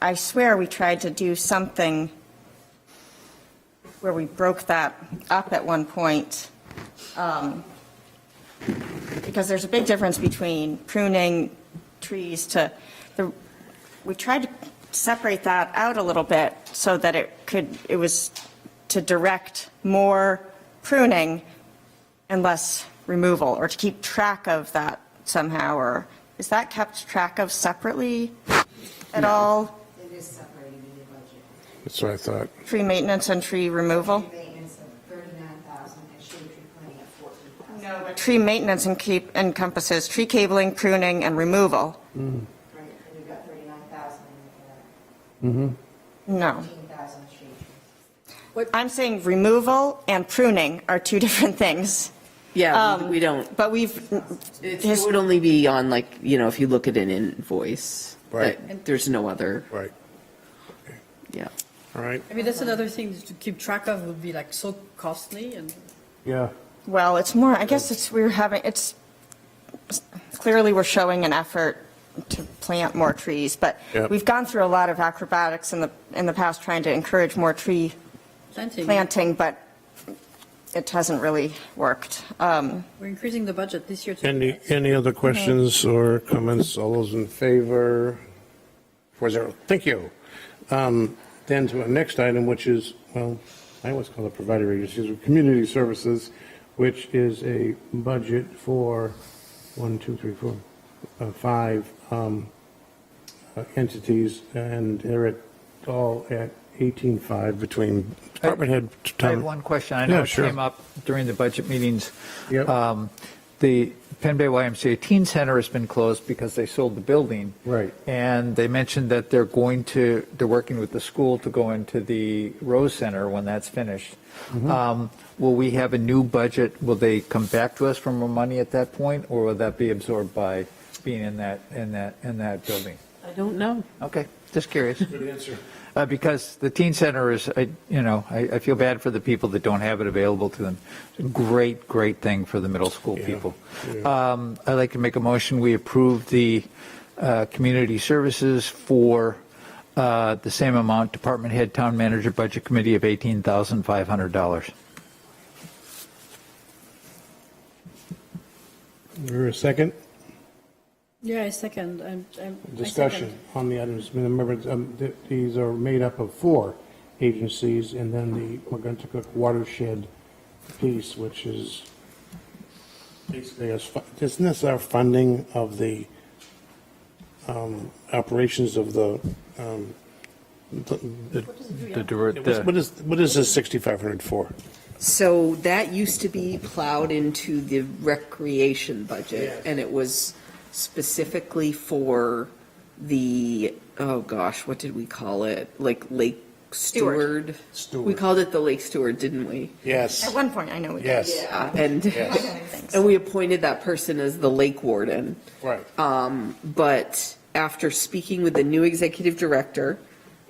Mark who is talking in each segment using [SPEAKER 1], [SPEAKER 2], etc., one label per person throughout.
[SPEAKER 1] I swear we tried to do something where we broke that up at one point. um, Because there's a big difference between pruning trees to, the. we tried to separate that out a little bit so that it could, it was to direct more pruning and less removal, or to keep track of that somehow, or is that kept track of separately at all?
[SPEAKER 2] It is separated in the budget.
[SPEAKER 3] That's what I thought.
[SPEAKER 1] Tree maintenance and tree removal?
[SPEAKER 2] Tree Maintenance of thirty-nine thousand and shade tree planting at fourteen thousand.
[SPEAKER 1] No, but Tree maintenance and keep encompasses tree cabling, pruning, and removal.
[SPEAKER 2] Right, and you've got thirty-nine thousand and
[SPEAKER 1] No.
[SPEAKER 2] fourteen thousand shade trees.
[SPEAKER 1] I'm saying removal and pruning are two different things.
[SPEAKER 4] Yeah, we-
[SPEAKER 1] Um,
[SPEAKER 4] we don't,
[SPEAKER 1] But we've, mm,
[SPEAKER 4] it
[SPEAKER 1] his-
[SPEAKER 4] would only be on like, you know, if you look at an invoice.
[SPEAKER 3] Right.
[SPEAKER 4] but There's no other,
[SPEAKER 3] Right.
[SPEAKER 4] yeah.
[SPEAKER 3] All right.
[SPEAKER 5] I mean, that's another thing to keep track of would be like so costly and
[SPEAKER 3] Yeah.
[SPEAKER 1] well, it's more, I guess it's, we're having, it's, clearly we're showing an effort to plant more trees, but
[SPEAKER 3] Yep.
[SPEAKER 1] we've gone through a lot of acrobatics in the, in the past trying to encourage more tree
[SPEAKER 5] planting.
[SPEAKER 1] planting, but it hasn't really worked. Um,
[SPEAKER 5] We're increasing the budget this year to
[SPEAKER 3] Any, any other questions or comments? All those in favor? Four zero. Thank you. Um, Then to our next item, which is, well, I always call it provider agencies, or community services, which is a budget for one, two, three, four, uh, five um, uh, entities, and they're at, all at 18.5 between department head.
[SPEAKER 6] I
[SPEAKER 3] town-
[SPEAKER 6] have one question. I know
[SPEAKER 3] Yeah,
[SPEAKER 6] it
[SPEAKER 3] sure.
[SPEAKER 6] came up during the budget meetings.
[SPEAKER 3] Yep.
[SPEAKER 6] Um, The Penn Bay YMCA Teen Center has been closed because they sold the building.
[SPEAKER 3] Right.
[SPEAKER 6] And they mentioned that they're going to, they're working with the school to go into the Rose Center when that's finished.
[SPEAKER 3] Mm-hmm.
[SPEAKER 6] Um, Will we have a new budget? Will they come back to us for more money at that point? Or will that be absorbed by being in that, in that, in that building?
[SPEAKER 4] I don't know.
[SPEAKER 6] Okay, just curious. Uh, Because the teen center is, I, you know, I, I feel bad for the people that don't have it available to them. Great, great thing for the middle school
[SPEAKER 3] Yeah,
[SPEAKER 6] people.
[SPEAKER 3] yeah.
[SPEAKER 6] Um, I'd like to make a motion, we approve the uh, community services for uh, the same amount, department head, town manager, budget committee of $18,500.
[SPEAKER 3] Or a second?
[SPEAKER 5] yeah, I second. I'm, I'm, I
[SPEAKER 3] discussion
[SPEAKER 5] second.
[SPEAKER 3] on the items. Remember, um, th- these are made up of four agencies, and then the McGuntacook watershed piece, which is basically, us fu- isn't this our funding of the um, operations of the, um, the- the-
[SPEAKER 6] The dir- the-
[SPEAKER 3] what is, what is this 6,500 for?
[SPEAKER 4] So that used to be plowed into the recreation budget, and it was specifically for the, oh gosh, what did we call it? Like Lake Steward?
[SPEAKER 3] Steward.
[SPEAKER 4] We called it the Lake Steward, didn't we?
[SPEAKER 1] At
[SPEAKER 3] Yes,
[SPEAKER 1] one point, I know we did.
[SPEAKER 3] yes,
[SPEAKER 4] Yeah, and,
[SPEAKER 1] Yes.
[SPEAKER 4] and we appointed that person as the lake warden.
[SPEAKER 3] right.
[SPEAKER 4] Um, But after speaking with the new executive director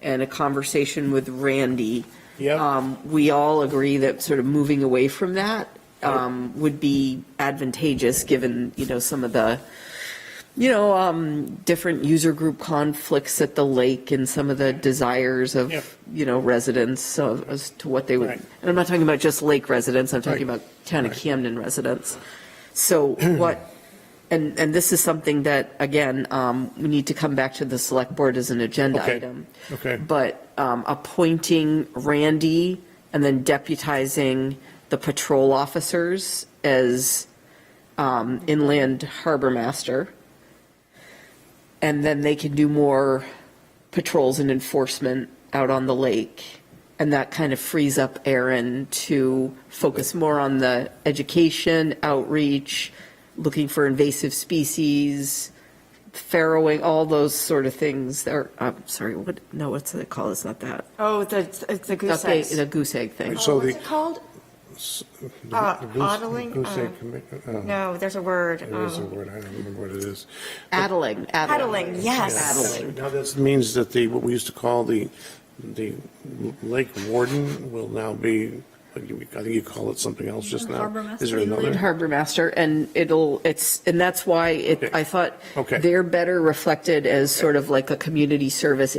[SPEAKER 4] and a conversation with Randy,
[SPEAKER 3] Yep.
[SPEAKER 1] Uh,
[SPEAKER 4] um, we all agree that sort of moving away from that um, would be advantageous, given, you know, some of the, you know, um, different user group conflicts at the lake and some of the desires of,
[SPEAKER 3] Yep.
[SPEAKER 4] you know, residents of- as to what they would.
[SPEAKER 3] Right.
[SPEAKER 4] And I'm not talking about just lake residents, I'm talking
[SPEAKER 3] Right.
[SPEAKER 4] about town of Camden residents. So what, and, and this is something that, again, um, we need to come back to the select board as an agenda
[SPEAKER 3] Okay.
[SPEAKER 4] item.
[SPEAKER 3] Okay.
[SPEAKER 4] But um, appointing Randy and then deputizing the patrol officers as um, inland harbor master. And then they can do more patrols and enforcement out on the lake. And that kind of frees up Aaron to focus more on the education, outreach, looking for invasive species, farrowing, all those sort of things. Or, I'm sorry, what, no, what's it called? It's not that.
[SPEAKER 1] Oh, the, it's the goose
[SPEAKER 4] Not the-
[SPEAKER 1] eggs.
[SPEAKER 4] The goose egg thing.
[SPEAKER 3] So
[SPEAKER 1] Oh, What's
[SPEAKER 3] the-
[SPEAKER 1] it called? Uh, Ottling, uh, No, there's a word.
[SPEAKER 3] There is a
[SPEAKER 1] um,
[SPEAKER 3] word, I don't remember what it is.
[SPEAKER 4] Addling.
[SPEAKER 1] Paddling, yes.
[SPEAKER 4] Paddling.
[SPEAKER 3] Now, this means that the, what we used to call the, the lake warden will now be, I think you call it something else just now.
[SPEAKER 5] Harbor master.
[SPEAKER 3] Is there
[SPEAKER 4] Inland
[SPEAKER 3] another?
[SPEAKER 4] Harbor Master, and it'll, it's, and that's why it, I thought
[SPEAKER 3] Okay.
[SPEAKER 4] they're better reflected as sort of like a community service